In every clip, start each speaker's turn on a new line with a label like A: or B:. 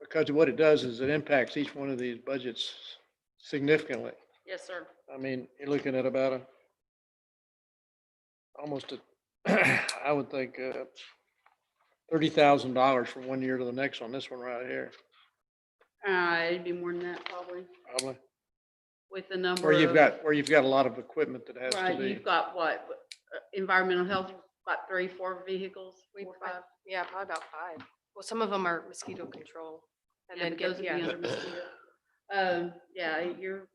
A: Because what it does is it impacts each one of these budgets significantly.
B: Yes, sir.
A: I mean, you're looking at about a, almost a, I would think, uh, thirty thousand dollars from one year to the next on this one right here,
B: Uh, it'd be more than that probably
A: probably.
B: with the number.
A: Where you've
B: of-
A: got, where you've got a lot of equipment that has to
B: Right,
A: be.
B: you've got what, uh, environmental health, about three, four vehicles,
C: We
B: four,
C: prob-
B: five.
C: Yeah, probably about five. Well, some of them are mosquito control. And
B: Yeah,
C: then
B: but those
C: get,
B: would be
C: yeah.
B: under mosquito. Um, yeah, you're,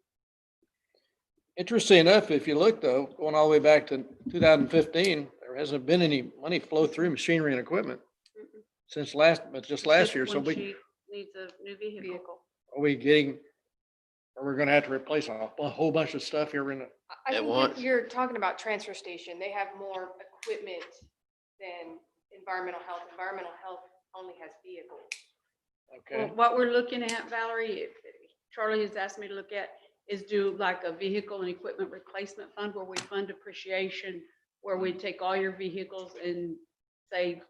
A: Interesting enough, if you look though, going all the way back to two thousand fifteen, there hasn't been any money flow through machinery and equipment
B: Mm-mm.
A: since last, but just
B: it's
A: last
B: just
A: year. So
B: when
A: we,
B: she Needs a new vehicle.
C: vehicle.
A: are we getting, are we gonna have to replace a a whole bunch of stuff here in, a-
C: I- I
D: At
C: think you're-
D: once.
C: you're talking about transfer station. They have more equipment than environmental health. Environmental health only has vehicles.
A: okay?
B: Well, What we're looking at, Valerie, if- Charlie has asked me to look at, is do like a vehicle and equipment replacement fund where we fund depreciation, where we take all your vehicles and say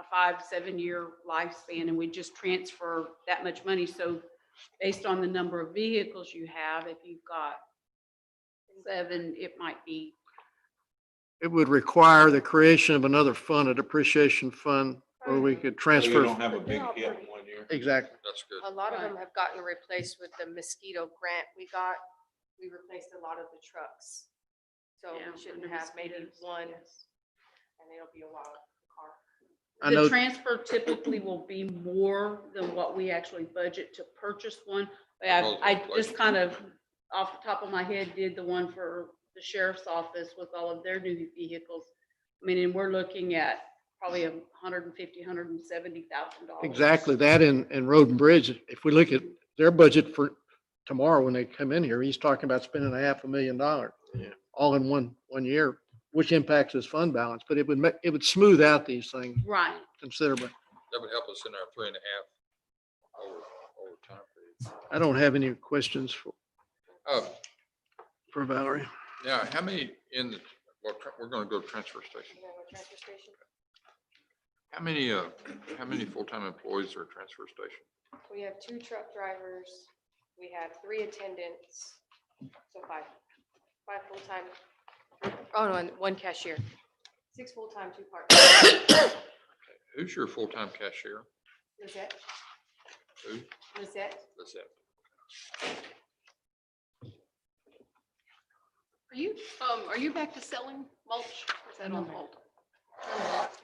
B: a five, seven-year lifespan, and we just transfer that much money. So based on the number of vehicles you have, if you've got seven, it might be,
A: It would require the creation of another fund, a depreciation fund, where we could
E: So you
A: transfer.
E: don't have a big
C: Yeah,
E: hit in
C: pretty-
E: one year.
A: Exactly.
D: That's good.
C: A lot of
B: Right.
C: them have gotten replaced with the mosquito grant we got. We replaced a lot of the trucks. So
B: yeah,
C: we shouldn't
B: under
C: have maybe
B: mosquitoes,
C: one
B: yes.
C: and it'll be a while. car.
A: I
B: The
A: know-
B: transfer typically will be more than what we actually budget to purchase one. I,
D: Oh,
B: I
D: like-
B: just kind of, off the top of my head, did the one for the sheriff's office with all of their new vehicles. I mean, and we're looking at probably a hundred and fifty, hundred and seventy thousand dollars.
A: Exactly that in, in Road and Bridge. If we look at their budget for tomorrow, when they come in here, he's talking about spending a half a million dollars.
D: Yeah.
A: All in one, one year, which impacts his fund balance, but it would, ma- it would smooth out these things
B: Right,
A: considerably.
D: That would help us in our three and a half over, over time period.
A: I don't have any questions for,
D: Uh,
A: for Valerie.
D: now, how many in the, well, tra- we're gonna go to transfer station.
C: You know, a transfer station.
D: How many, uh, how many full-time employees are at transfer station?
C: We have two truck drivers, we have three attendants, so five, five full-time. Oh, no, and one cashier. Six full-time, two part-time.
D: Who's your full-time cashier?
C: Lizette,
D: Who?
C: Lizette,
D: That's it.
F: Are you, um, are you back to selling mulch? Is that on hold?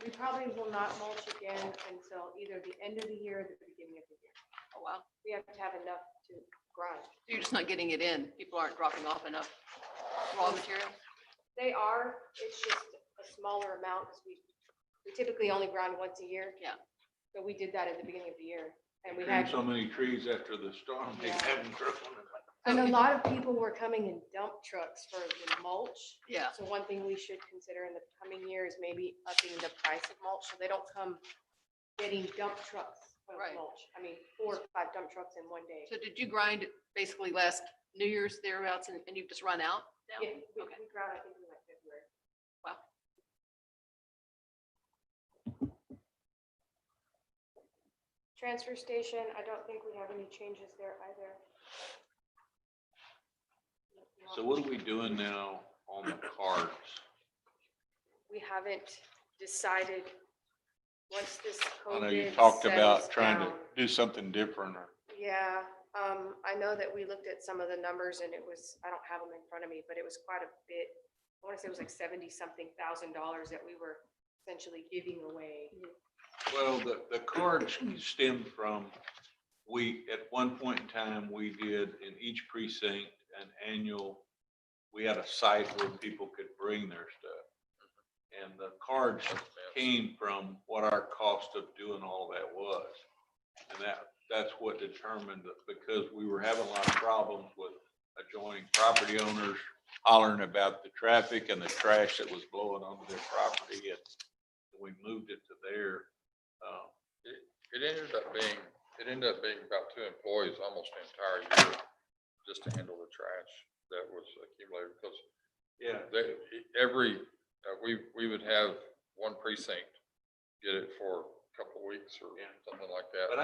C: we probably will not mulch again until either the end of the year or the beginning of the year.
F: Oh, wow.
C: We have to have enough to grind.
F: You're just not getting it in. People aren't dropping off enough raw material?
C: They are, it's just a smaller amount, because we, we typically only grind once a year.
F: Yeah.
C: So we did that at the beginning of the year, and we
E: Trimmed
C: had.
E: so many trees after the storm, they
C: Yeah.
E: haven't grown.
C: And a
F: Okay.
C: lot of people were coming in dump trucks for the mulch.
F: Yeah.
C: So one thing we should consider in the coming year is maybe upping the price of mulch, so they don't come getting dump trucks of
F: Right.
C: mulch. I mean, four or five dump trucks in one day.
F: So did you grind it basically last New Year's thereabouts and, and you've just run out now?
C: Yeah, we,
F: Okay.
C: we ground, I think, in like February.
F: Wow.
C: Transfer station, I don't think we have any changes there either.
E: So what are we doing now on the cards?
C: we haven't decided, once this
E: I know
C: COVID.
E: you talked
C: settles
E: about trying to
C: down.
E: do something different or
C: Yeah, um, I know that we looked at some of the numbers and it was, I don't have them in front of me, but it was quite a bit. I wanna say it was like seventy something thousand dollars that we were essentially giving away.
E: Well, the, the cards stem from, we, at one point in time, we did in each precinct an annual, we had a site where people could bring their stuff. And the cards came from what our cost of doing all that was. And that, that's what determined, it, because we were having a lot of problems with adjoining property owners hollering about the traffic and the trash that was blowing onto their property. And we moved it to there. Uh,
D: Um, It ended up being, it ended up being about two employees almost the entire year just to handle the trash that was accumulated because
E: Yeah,
D: They, every, uh, we, we would have one precinct get it for a couple of weeks or
E: Yeah.
D: something like that.
E: But